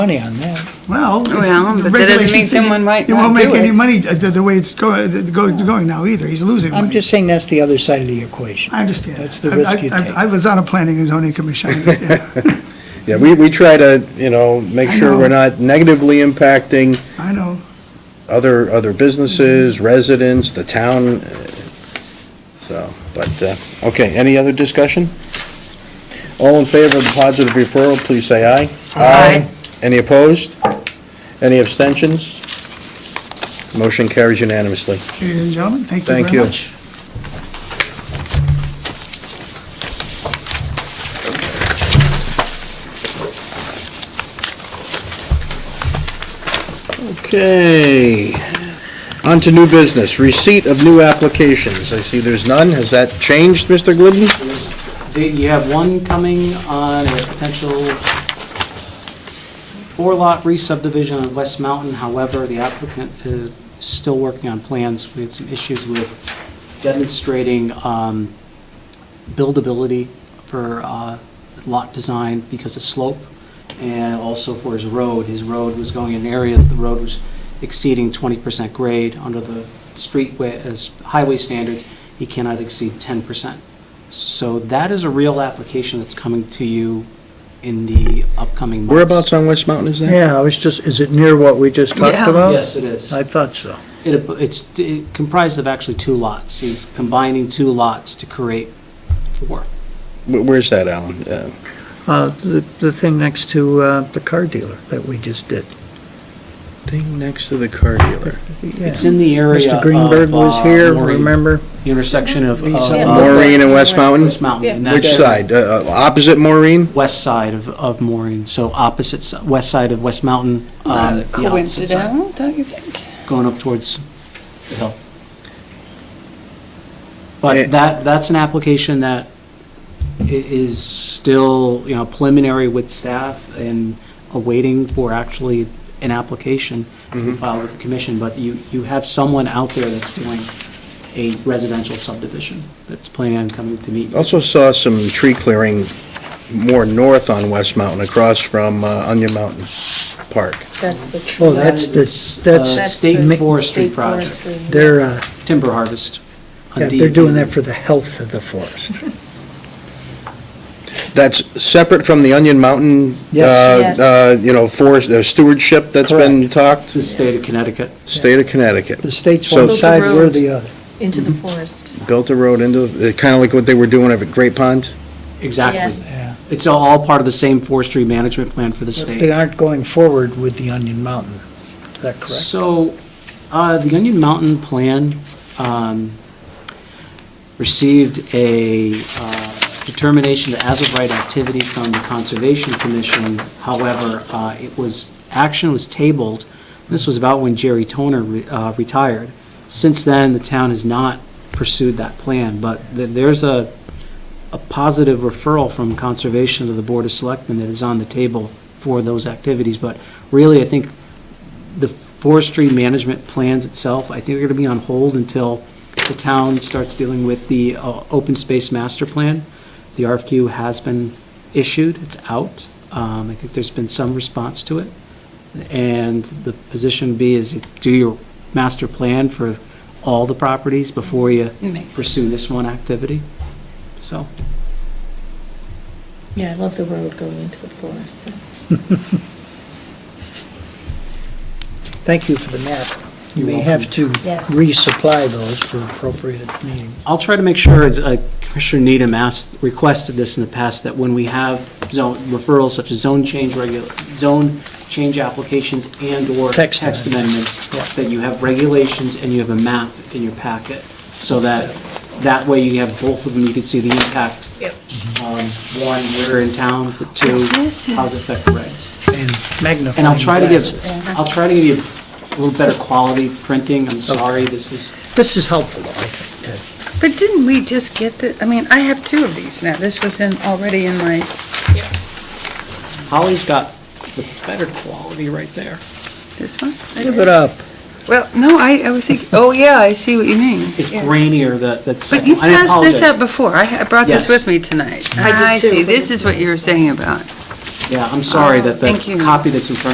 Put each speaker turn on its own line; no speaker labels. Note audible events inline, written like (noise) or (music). money on that.
Well.
Well,
the
but that doesn't
regulations
mean
say
someone might
It won't
not
make
do
any
it.
money uh, the, the way it's go- the- the go- going now either. He's losing money.
I'm just saying that's the other side of the equation.
I understand.
That's the
I-
risk
I-
you
I-
take.
I was on a planning and zoning commission, I understand. (laughs)
Yeah, we, we try to, you know, make
I
sure we're
know.
not negatively impacting
I know.
other, other businesses, residents, the town, uh, so, but, uh, okay, any other discussion? All in favor of the positive referral, please say aye.
Aye.
Any opposed? Any abstentions? Motion carries unanimously.
Ladies and gentlemen, thank you
Thank
very
you.
much.
Okay, on to new business, receipt of new applications. I see there's none. Has that changed, Mr. Glidden?
They- You have one coming on a potential four-lot re-subdivision on West Mountain. However, the applicant is still working on plans. We had some issues with demonstrating um, buildability for uh, lot design because of slope, and also for his road. His road was going in areas, the road was exceeding 20% grade under the street, wa- uh, highway standards. He cannot exceed 10%. So that is a real application that's coming to you in the upcoming months.
Whereabouts on West Mountain is that?
Yeah, I was just, is it near what we just talked
Yeah.
about?
Yes, it is.
I thought so.
It, it's it comprised of actually two lots. He's combining two lots to create four.
Wh- Where's that, Alan? Uh,
Uh, the, the thing next to, uh, the car dealer that we just did.
Thing next to the car dealer.
It's in the area
Mr. Greenberg
of,
was
uh,
here,
Maureen.
remember?
The intersection of, of,
Lisa.
uh,
Maureen and West Mountain?
West Mountain. and
Which
that's-
side? Uh, uh, Opposite Maureen?
West side of, of Maureen, so opposite, s- west side of West Mountain. um,
Uh,
the opposite side,
Coincidental, don't you think?
Going up towards the hill.
Eh.
Eh.
But that, that's an application that i- is still, you know, preliminary with staff and awaiting for actually an application to
Mm-hmm.
be filed with the commission, but you, you have someone out there that's doing a residential subdivision that's planning on coming to meet. you.
Also saw some tree clearing more north on West Mountain, across from uh, Onion Mountain Park.
That's the tree.
Oh, that's the,
Uh,
that's,
That's
state
the
forestry
state
project.
forestry.
they're, uh,
timber harvest. on E
yeah, they're
DEP.
doing that for the health of the
(laughs)
forest.
That's separate from the Onion Mountain,
Yes.
Yes.
uh, uh, you know, forest uh, stewardship that's been talked,
It's the state of Connecticut.
state of Connecticut.
The state's
So-
one side, we're the other.
Into the forest.
Built a road into, kind of like what they were doing over at Great Pond.
Exactly.
Yes.
Yeah.
It's all part of the same forestry management plan for the
They
state.
aren't going forward with the Onion Mountain. Is that correct?
So, uh, the Onion Mountain Plan um, received a uh, determination to as-of-right activity from the Conservation Commission. However, uh, it was, action was tabled. This was about when Jerry Toner re- uh, retired. Since then, the town has not pursued that plan, but th- there's a, a positive referral from Conservation to the Board of Selectmen that is on the table for those activities. But really, I think the forestry management plans itself, I think they're going to be on hold until the town starts dealing with the uh, open space master plan. The RFQ has been issued, it's out. Um, I think there's been some response to it. And the position B is do your master plan for all the properties before you
Makes
pursue this one activity. So,
Yeah, I love the road going into the forest.
Thank you for the map. You
You're
may
welcome.
have to
Yes.
resupply those for appropriate meeting.
I'll try to make sure, as uh, Commissioner Needham asked, requested this in the past, that when we have zone referrals such as zone change regula, zone change applications and/or
Text
text
amendments.
amendments, that you have regulations and you have a map in your packet, so that, that way you have both of them, you can see the impact.
Yep.
on One, where in town, but two,
This
how's it affect regs.
and magnifying.
And I'll try to give,
glasses.
I'll try to give you a little better quality printing, I'm sorry, this is.
This is helpful, though, I think.
But didn't we just get the, I mean, I have two of these now. This was in, already in my,
Holly's got the better quality right there.
this one?
to Give it
uh,
up.
Well, no, I, I was thinking, oh, yeah, I see what you mean.
It's
Yeah.
grainier, that, that's.
But you
I
passed this
apologize.
up before. I I brought this
Yes.
with me tonight.
I did
I
too,
see.
but
This
it's
is what you were saying about.
Yeah, I'm sorry
Oh,
that
thank
the
you.
copy that's in front